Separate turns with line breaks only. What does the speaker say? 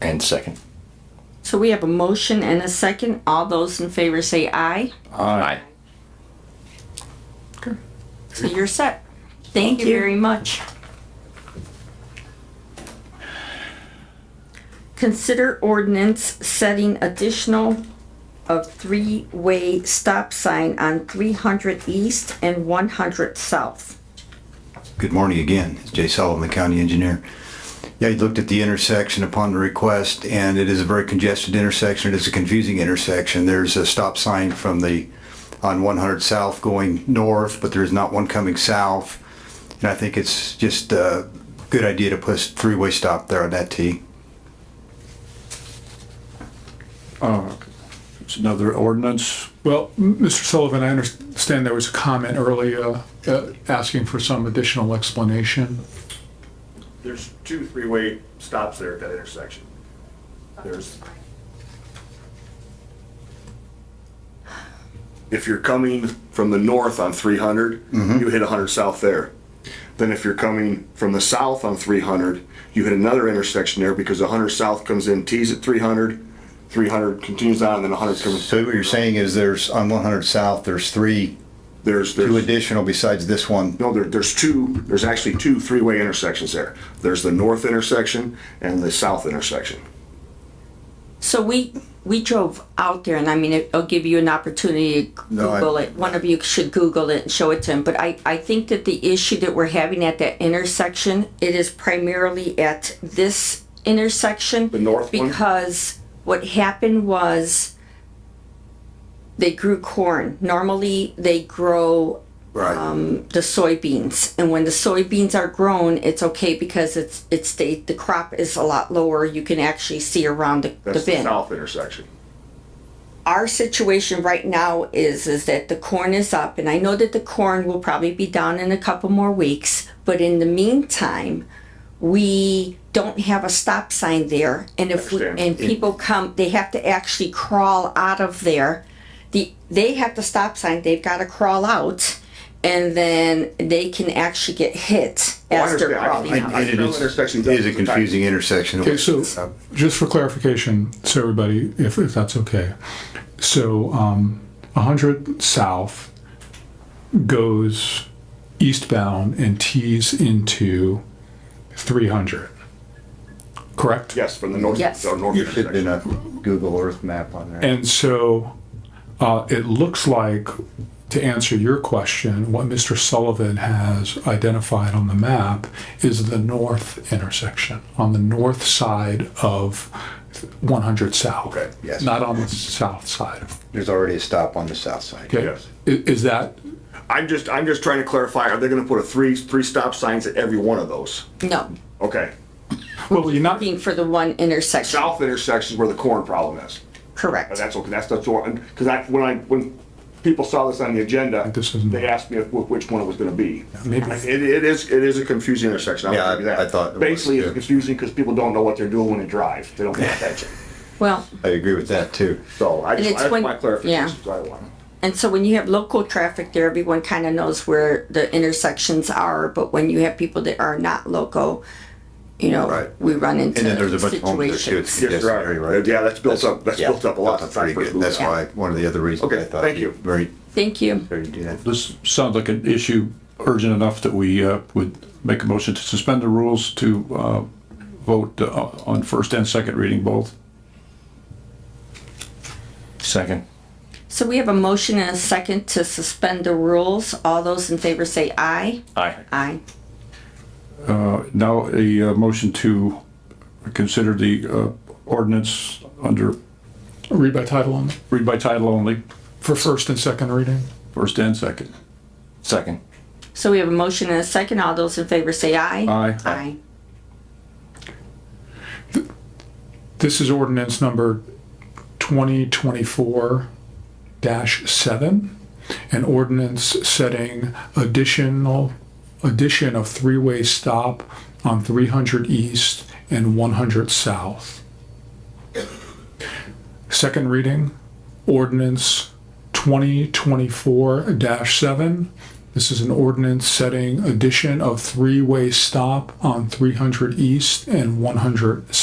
And second.
So we have a motion and a second. All those in favor say aye.
Aye.
So you're set. Thank you very much. Consider ordinance setting additional of three-way stop sign on three hundred east and one hundred south.
Good morning again. It's Jay Sullivan, the county engineer. Yeah, you looked at the intersection upon the request, and it is a very congested intersection. It is a confusing intersection. There's a stop sign from the, on 100 South going north, but there's not one coming south. And I think it's just a good idea to put a three-way stop there on that T.
It's another ordinance.
Well, m- Mr. Sullivan, I understand there was a comment earlier uh, asking for some additional explanation.
There's two three-way stops there at that intersection. There's. If you're coming from the north on three hundred, you hit hundred south there. Then if you're coming from the south on three hundred, you hit another intersection there because hundred south comes in, tees at 300, 300 continues on, and then hundred comes.
So what you're saying is there's, on 100 South, there's three,
There's,
two
there's,
additional besides this one.
no, there, there's two, there's actually two three-way intersections there. There's the north intersection and the south intersection.
So we, we drove out there and I mean, it'll give you an opportunity to
No, I-
Google it. One of you should Google it and show it to him. But I, I think that the issue that we're having at that intersection, it is primarily at this intersection. The
north one?
Because what happened was they grew corn. Normally they grow
Right.
the soybeans and when the soybeans are grown it's okay because it's it stayed the crop is a lot lower you can actually see around the, the
That's the
bin
south intersection.
our situation right now is is that the corn is up and i know that the corn will probably be down in a couple more weeks but in the meantime we don't have a stop sign there and if we,
Understand.
and people come they have to actually crawl out of there the they have the stop sign they've got to crawl out and then they can actually get hit as they're crawling out
I- it is-
Intersection
It is a
doesn't-
confusing intersection. Uh,
Okay, so just for clarification, so everybody, if, if that's okay. So um, 100 South goes eastbound and tees into 300, correct?
Yes, from the north,
Yes.
or north
There should have been
intersection.
a Google Earth map on there.
And so uh, it looks like, to answer your question, what Mr. Sullivan has identified on the map is the north intersection, on the north side of 100 South.
Okay,
yes.
Not on the south side. of-
There's already a stop on the south side.
Okay.
Yes.
I- Is that,
I'm just, I'm just trying to clarify, are they gonna put a three, three stop signs at every one of those?
no
Okay,
well, you're not,
looking for the one intersection
south Oh, intersection is where the corn problem is.
correct
But that's okay, that's, that's, because I, when I, when people saw this on the agenda,
This isn't-
they asked me if- wh- which one it was gonna be.
maybe-
Like, It, it is, it is a confusing intersection, I'll
Yeah,
give you
I-
that.
I thought it was,
Basically, it's
too.
confusing because people don't know what they're doing when they drive, they don't pay attention.
well
I agree with that too.
So I just,
it's
that's
when-
my
yeah.
clarification, that's what I want.
And so when you have local traffic there, everyone kind of knows where the intersections are, but when you have people that are not local, you know,
Right.
we run into
And then there's a bunch of homes there too. It's
situations.
a
Yes, there
congested area,
are.
right?
Yeah, that's built up- that's built up a lot
built
since I
pretty
first
good.
moved
That's
here.
why, one of the other reasons
Okay,
I thought
thank
you
you.
very,
Thank you.
very do that.
This sounds like an issue urgent enough that we uh, would make a motion to suspend the rules to uh, vote uh, on first and second reading both.
Second.
So we have a motion and a second to suspend the rules. All those in favor say aye.
Aye.
Aye.
Now, a uh, motion to consider the uh, ordinance under,
read by title only,
read by title only,
for first and second reading?
first and second.
Second.
So we have a motion and a second. All those in favor say aye.
Aye.
Aye.
This is ordinance number 2024-7, an ordinance setting additional, addition of three-way stop on 300 East and 100 South. Second reading, ordinance 2024-7. This is an ordinance setting addition of three-way stop on 300 East and 100